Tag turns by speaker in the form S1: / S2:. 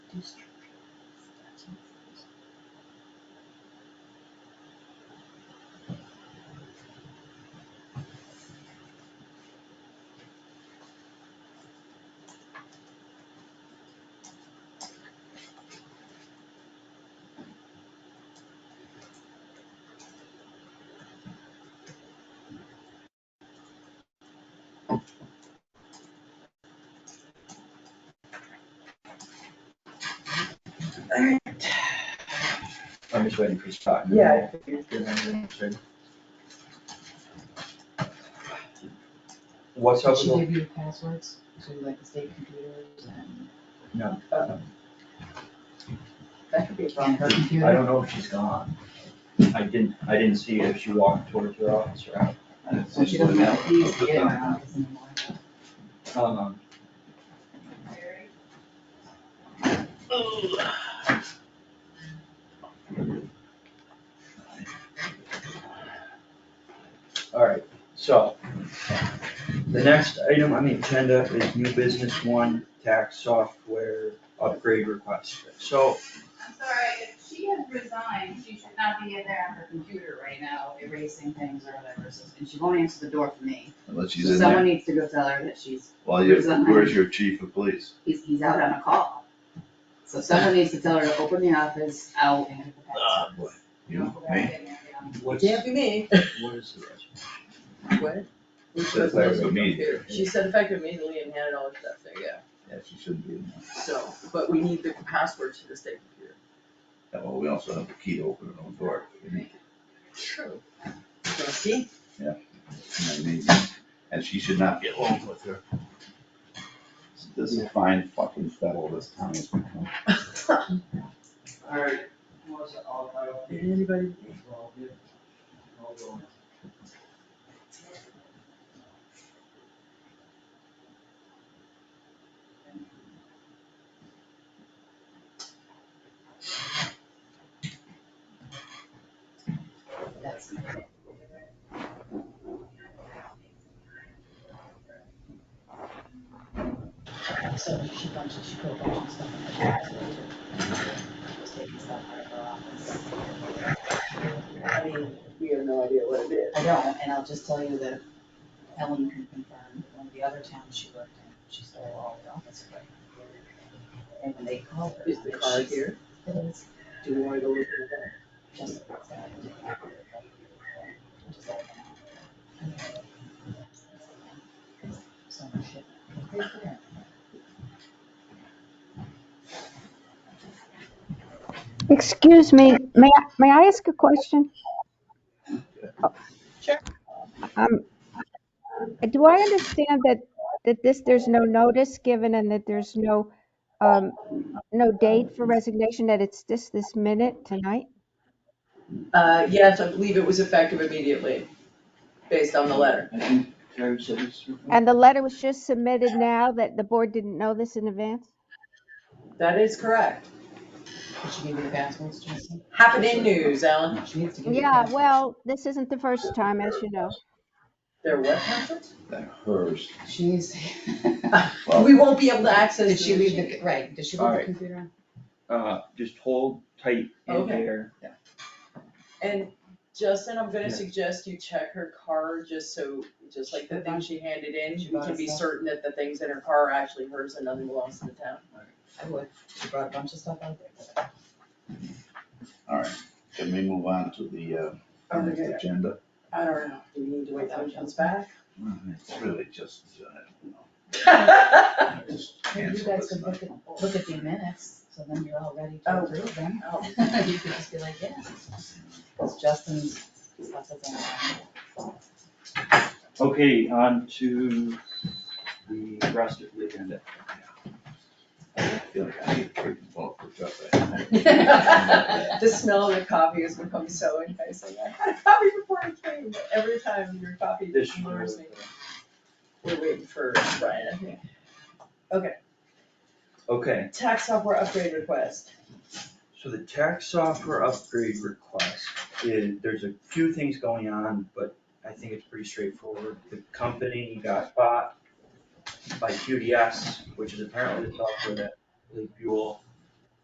S1: I'm just waiting for his talk.
S2: Yeah.
S1: What's up
S2: She
S1: with,
S2: give you passwords to like the state computers and.
S1: No.
S2: Uh-oh. That could be from her
S1: the- I
S2: computer.
S1: don't know if she's gone. I didn't, I didn't see if she walked towards her office or out.
S2: So she doesn't have keys to get in my office anymore.
S1: Um, Alright, so. The next item on the agenda is new business one, tax software upgrade request. So,
S3: I'm sorry, if she has resigned, she should not be in there on her computer right now erasing things or whatever, so- and she won't answer the door for me.
S4: Unless
S3: So
S4: she's in
S3: Someone
S4: there,
S3: needs to go tell her that she's,
S4: well, you,
S3: who's on
S4: where's
S3: my-
S4: your chief of police?
S3: he's, he's out on a call. So someone needs to tell her to open the office out and get the
S4: Ah, boy.
S3: passwords.
S4: You,
S3: Don't go
S4: me?
S3: back in there, get on.
S1: what's,
S5: Can't be me.
S1: what is the rest?
S5: What?
S4: Says that was me.
S5: She said effective immediately and handed all the stuff there, yeah,
S4: Yeah, she shouldn't be in
S5: so, but we need the password to the state computer.
S4: there. Yeah, Well, we also have the key to open her own door. And
S5: True. See?
S4: I mean, And she should not get along with her. This is fine fucking federal this town has become.
S1: Alright, what's it all about?
S5: Anybody?
S3: That's- So she bunches, she put a bunch of stuff in the password. Just taking stuff out of her office.
S5: I mean, we have no idea what it is.
S3: I don't, and I'll just tell you that Ellen can confirm, one of the other towns she worked in, she stole all the office equipment. And when they called her.
S5: Is the card here?
S3: It is
S5: Do we wanna go look at that?
S3: just. So much shit.
S6: Excuse me, may, I- may I ask a question?
S5: Sure.
S6: Um, do I understand that, that this, there's no notice given and that there's no, um, no date for resignation, that it's just this minute tonight?
S5: Uh, yes, I believe it was effective immediately, based on the letter.
S1: I think Karen said it's.
S6: And the letter was just submitted now, that the board didn't know this in advance?
S5: That is correct.
S3: Did she give you the passwords, Jason?
S5: Happening news, Alan.
S3: She needs to give you. the
S6: Yeah,
S3: passwords.
S6: well, this isn't the first time, as you know.
S5: There what happened?
S4: That hers.
S3: She needs.
S4: Well,
S5: We won't be able to access.
S3: Did she
S5: the
S3: leave
S5: machine.
S3: the, right, did she leave the
S1: Alright.
S3: computer on?
S1: Uh, just hold tight in
S5: Okay.
S1: there.
S5: And Justin, I'm gonna
S1: Yeah.
S5: suggest you check her car, just so, just like the thing she handed in,
S3: She
S5: we
S3: bought
S5: can be
S3: stuff.
S5: certain that the things in her car are actually hers and nothing belongs to the town.
S3: I would, she brought a bunch of stuff out there.
S4: All right, can we move on to the, uh,
S5: Oh,
S4: next
S5: okay.
S4: agenda?
S5: I don't know, do we need to wait till it comes back?
S4: Well, It's really just, uh,
S5: Oh,
S4: just
S3: Maybe you
S4: cancel
S3: guys
S4: this
S3: could
S4: night.
S3: look at, look at the minutes, so then you're all ready to
S5: Oh.
S3: approve them. You could just be like, yeah, it's Justin's stuff that's in there.
S1: Okay, on to the rest of the agenda.
S4: I feel like I need to freaking vote for Jeff.
S5: The smell of the coffee has become so enticing, I had a coffee before I came, but every time your coffee
S1: This year,
S5: lures me. We're waiting for Brian, I think.
S1: Okay,
S5: Tax software upgrade request,
S1: so the tax software upgrade request is, there's a few things going on, but I think it's pretty straightforward. The company got bought by QDS, which is apparently the software that Lee Buell